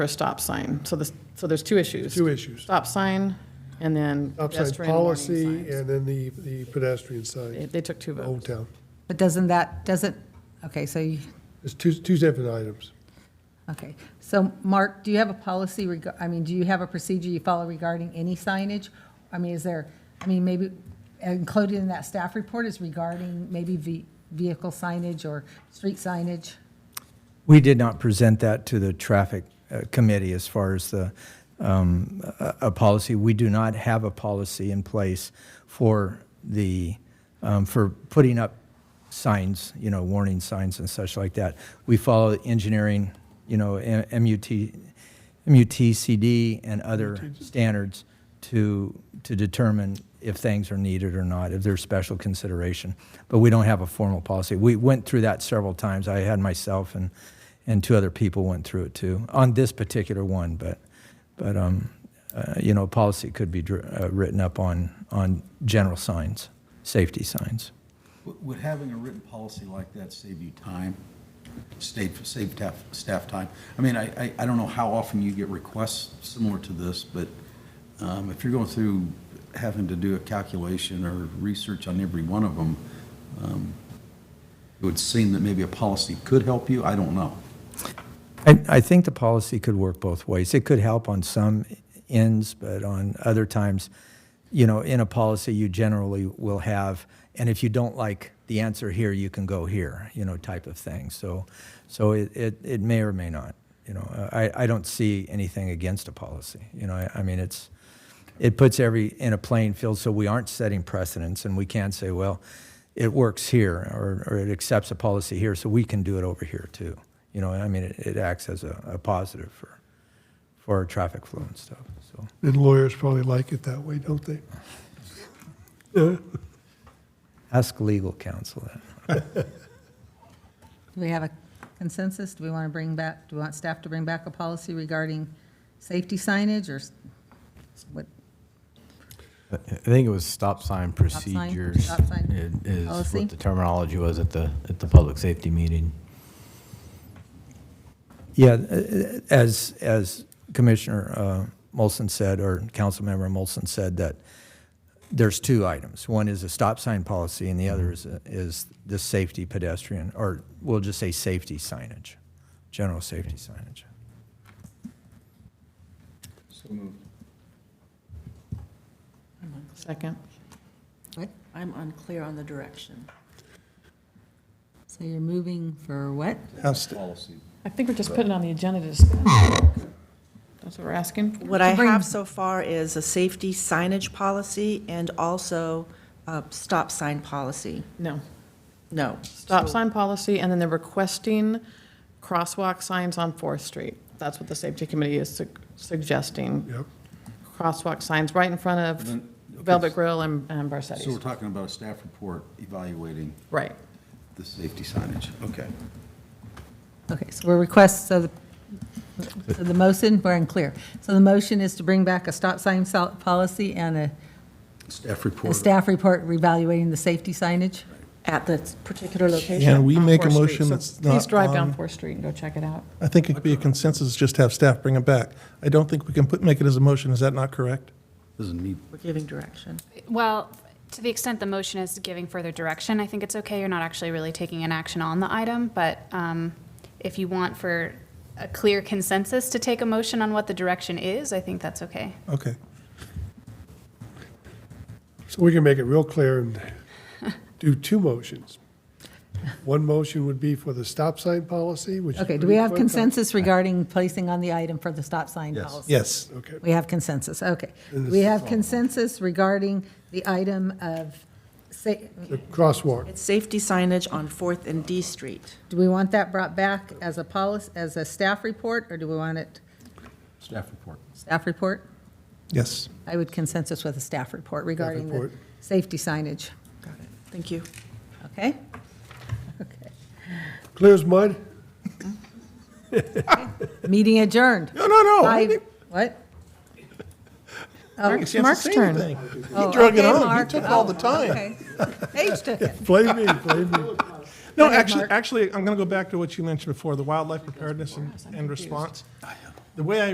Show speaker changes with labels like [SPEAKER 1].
[SPEAKER 1] for a stop sign. So this, so there's two issues.
[SPEAKER 2] Two issues.
[SPEAKER 1] Stop sign and then
[SPEAKER 2] Stop sign
[SPEAKER 1] pedestrian warning
[SPEAKER 2] policy
[SPEAKER 1] signs.
[SPEAKER 2] and then the, the pedestrian sign,
[SPEAKER 1] They- They took two
[SPEAKER 2] Old
[SPEAKER 1] votes.
[SPEAKER 2] Town.
[SPEAKER 3] But doesn't that, doesn't, okay, so, you-
[SPEAKER 2] It's two, two separate items.
[SPEAKER 3] okay. So, Mark, do you have a policy, reg- I mean, do you have a procedure you follow regarding any signage? I mean, is there, I mean, maybe included in that staff report is regarding maybe ve- vehicle signage or street signage?
[SPEAKER 4] We did not present that to the traffic uh, committee as far as the, um, a, a policy. We do not have a policy in place for the, um, for putting up signs, you know, warning signs and such like that. We follow engineering, you know, M- MUT, MUTCD and other standards to, to determine if things are needed or not, if there's special consideration. But we don't have a formal policy. We went through that several times. I had myself and, and two other people went through it too, on this particular one, but, but, um, uh, you know, policy could be dr- uh, written up on, on general signs, safety signs.
[SPEAKER 5] Would would having a written policy like that save you time, save, save staff, staff time? I mean, I, I, I don't know how often you get requests similar to this, but um, if you're going through having to do a calculation or research on every one of them, um, it would seem that maybe a policy could help you, I don't know.
[SPEAKER 4] I, I think the policy could work both ways. It could help on some ends, but on other times, you know, in a policy, you generally will have, and if you don't like the answer here, you can go here, you know, type of thing. So, so it, it, it may or may not, you know, I, I don't see anything against a policy. You know, I, I mean, it's, it puts every in a playing field so we aren't setting precedents and we can say, well, it works here or, or it accepts a policy here, so we can do it over here too. You know, I mean, it, it acts as a, a positive for, for our traffic flow and stuff. So,
[SPEAKER 2] And lawyers probably like it that way, don't they?
[SPEAKER 4] ask legal counsel that.
[SPEAKER 3] Do we have a consensus? Do we want to bring back, do we want staff to bring back a policy regarding safety signage or s- what?
[SPEAKER 6] I think it was stop sign
[SPEAKER 3] sign,
[SPEAKER 6] procedures.
[SPEAKER 3] stop sign Oh,
[SPEAKER 6] i- Is
[SPEAKER 3] policy.
[SPEAKER 6] what the terminology was at the, at the public safety meeting.
[SPEAKER 4] Yeah, uh, as, as Commissioner uh, Molson said, or Councilmember Molson said, that there's two items. One is a stop sign policy, and the other is, uh, is the safety pedestrian, or we'll just say safety signage, general safety signage.
[SPEAKER 1] Second.
[SPEAKER 7] I'm unclear on the direction.
[SPEAKER 3] So you're moving for what?
[SPEAKER 5] Policy.
[SPEAKER 1] I think we're just putting on the agenda to discuss. That's what we're asking for.
[SPEAKER 7] What I
[SPEAKER 3] bring-
[SPEAKER 7] have so far is a safety signage policy and also a stop sign policy.
[SPEAKER 1] No.
[SPEAKER 7] No.
[SPEAKER 1] Stop
[SPEAKER 7] So-
[SPEAKER 1] sign policy, and then they're requesting crosswalk signs on Fourth Street. That's what the safety committee is su- suggesting,
[SPEAKER 2] Yep.
[SPEAKER 1] crosswalk signs right in front
[SPEAKER 5] And
[SPEAKER 1] of
[SPEAKER 5] then- okay,
[SPEAKER 1] Velvet Grill and and
[SPEAKER 5] So we're
[SPEAKER 1] Barsetti's.
[SPEAKER 5] talking about a staff report evaluating
[SPEAKER 1] Right.
[SPEAKER 5] the safety signage, okay.
[SPEAKER 3] Okay, so we're request, so the, so the motion, we're unclear. So the motion is to bring back a stop sign sol- policy and a,
[SPEAKER 5] Staff
[SPEAKER 3] a
[SPEAKER 5] report.
[SPEAKER 3] staff report reevaluating the safety signage?
[SPEAKER 7] At the particular location.
[SPEAKER 8] Can we
[SPEAKER 1] on
[SPEAKER 8] make a
[SPEAKER 1] Fourth Street.
[SPEAKER 8] motion
[SPEAKER 1] So
[SPEAKER 8] that's
[SPEAKER 1] Please
[SPEAKER 8] not
[SPEAKER 1] drive down
[SPEAKER 8] on-
[SPEAKER 1] Fourth Street and go check it out.
[SPEAKER 8] I think it could be a consensus, just have staff bring them back. I don't think we can put, make it as a motion, is that not correct?
[SPEAKER 5] Doesn't need
[SPEAKER 7] We're giving direction.
[SPEAKER 9] Well, to the extent the motion is giving further direction, I think it's okay. You're not actually really taking an action on the item, but um, if you want for a clear consensus to take a motion on what the direction is, I think that's okay.
[SPEAKER 8] Okay.
[SPEAKER 2] So we can make it real clear and do two motions. One motion would be for the stop sign policy, which. is
[SPEAKER 3] Okay, do we have
[SPEAKER 2] pretty quick.
[SPEAKER 3] consensus regarding placing on the item for the stop sign
[SPEAKER 5] Yes.
[SPEAKER 3] policy?
[SPEAKER 8] Yes.
[SPEAKER 2] Okay.
[SPEAKER 3] We have consensus, okay.
[SPEAKER 2] And this
[SPEAKER 3] We
[SPEAKER 2] is
[SPEAKER 3] have
[SPEAKER 2] all-
[SPEAKER 3] consensus regarding the item of, sa-
[SPEAKER 2] The crosswalk.
[SPEAKER 7] It's safety signage on Fourth and D Street.
[SPEAKER 3] do we want that brought back as a policy, as a staff report, or do we want it
[SPEAKER 5] staff report.
[SPEAKER 3] staff report?
[SPEAKER 8] Yes.
[SPEAKER 3] I would consensus with a staff report regarding the
[SPEAKER 2] report.
[SPEAKER 3] safety signage,
[SPEAKER 7] Got it. Thank you.
[SPEAKER 3] okay? Okay.
[SPEAKER 2] Clear as mud?
[SPEAKER 3] Meeting adjourned.
[SPEAKER 8] No, no, no. I
[SPEAKER 3] Five-
[SPEAKER 8] think
[SPEAKER 3] What?
[SPEAKER 8] Mark's turn.
[SPEAKER 1] uh, Mark's turn. Oh,
[SPEAKER 8] He drug
[SPEAKER 3] Oh,
[SPEAKER 8] it on, he took all the time.
[SPEAKER 3] Paige took it.
[SPEAKER 2] Blame me, blame me.
[SPEAKER 8] No,
[SPEAKER 3] ahead,
[SPEAKER 8] actually,
[SPEAKER 3] Mark.
[SPEAKER 8] actually, I'm going to go back to what you mentioned before, the wildlife preparedness and- and response. The way I